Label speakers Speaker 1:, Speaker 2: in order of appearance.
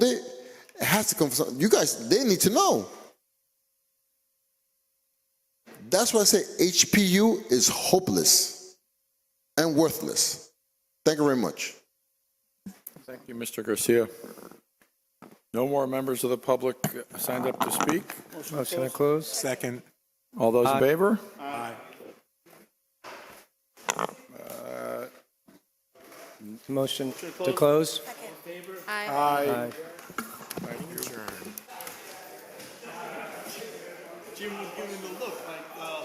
Speaker 1: has to come from something. You guys, they need to know. That's why I say HPU is hopeless and worthless. Thank you very much.
Speaker 2: Thank you, Mr. Garcia. No more members of the public signed up to speak?
Speaker 3: Motion to close?
Speaker 4: Second.
Speaker 2: All those in favor? Aye.
Speaker 3: Motion to close? Aye.